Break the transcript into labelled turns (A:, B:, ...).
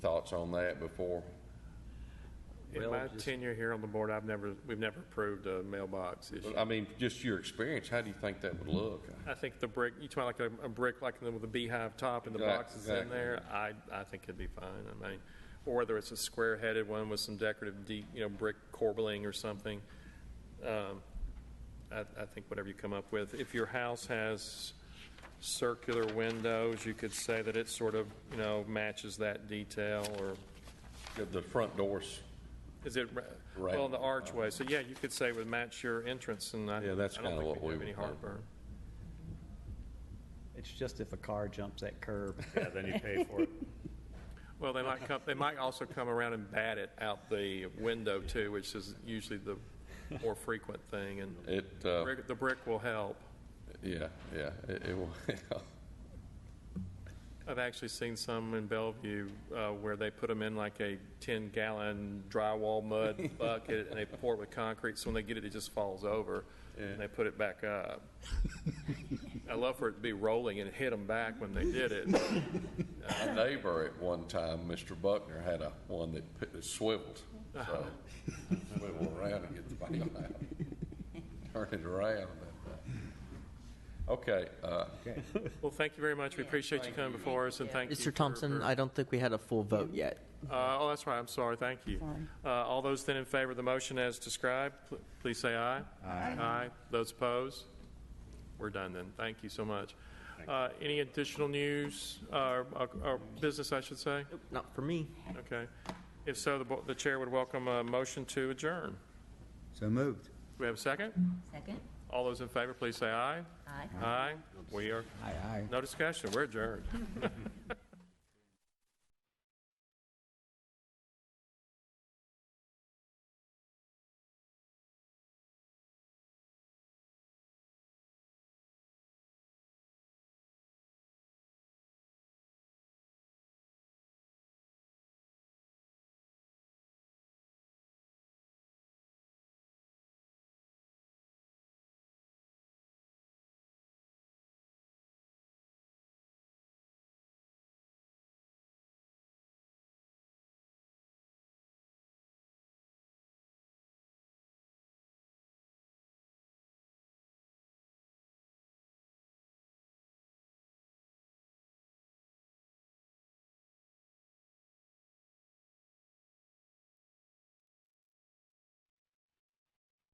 A: Thoughts on that before?
B: In
C: Well,
B: my
C: just-
B: tenure here on the board, I've never, we've never approved a mailbox issue.
A: I mean, just your experience, how do you think that would look?
B: I think the brick, you talk like a, a brick like the- with a beehive top and the
A: Exact-
B: boxes in
A: exactly.
B: there, I, I think it'd be fine. I mean, or whether it's a square-headed one with some decorative, deep, you know, brick corbelling or something. Um, I, I think whatever you come up with. If your house has circular windows, you could say that it sort of, you know, matches that detail or,
A: The front doors,
B: is it, ra-
A: Right.
B: well, the archway. So, yeah, you could say it would match your entrance and I, I
A: Yeah,
B: don't
A: that's
B: think
A: kinda what
B: we'd
A: we
B: have any
A: would want.
B: heartburn.
C: It's just if a car jumps that curb.
D: Yeah, then you pay for it.
B: Well, they might come, they might also come around and bat it out the window too, which is usually the more frequent thing, and
A: it, uh,
B: brick- the brick will help.
A: yeah, yeah, it, it will.
B: I've actually seen some in Bellevue uh, where they put them in like a 10-gallon drywall mud bucket, and they pour it with concrete, so when they get it, it just falls over,
A: Yeah.
B: and they put it back up. I love for it to be rolling and hit them back when they did it.
A: My neighbor at one time, Mr. Buckner, had a one that put- that swiveled, so swivel around and get the bail out. Turn it around. Okay, uh,
B: Well, thank you very much, we appreciate you coming before us, and thank you.
E: Mr.
B: for-
E: Thompson,
B: for-
E: I don't think we had a full vote yet.
B: Uh, Oh, that's right, I'm sorry, thank you. Uh, All those then in favor of the motion as described, pl- please say aye. Aye. Aye. Those opposed? We're done then, thank you so much. Uh, Any additional news, uh, or or business, I should say?
E: Not for me.
B: Okay. If so, the bo- the chair would welcome a motion to adjourn.
F: So moved.
B: Do we have a second?
G: Second?
B: All those in favor, please say aye.
G: Aye.
B: Aye. We are,
F: Aye, aye.
B: no discussion, we're adjourned.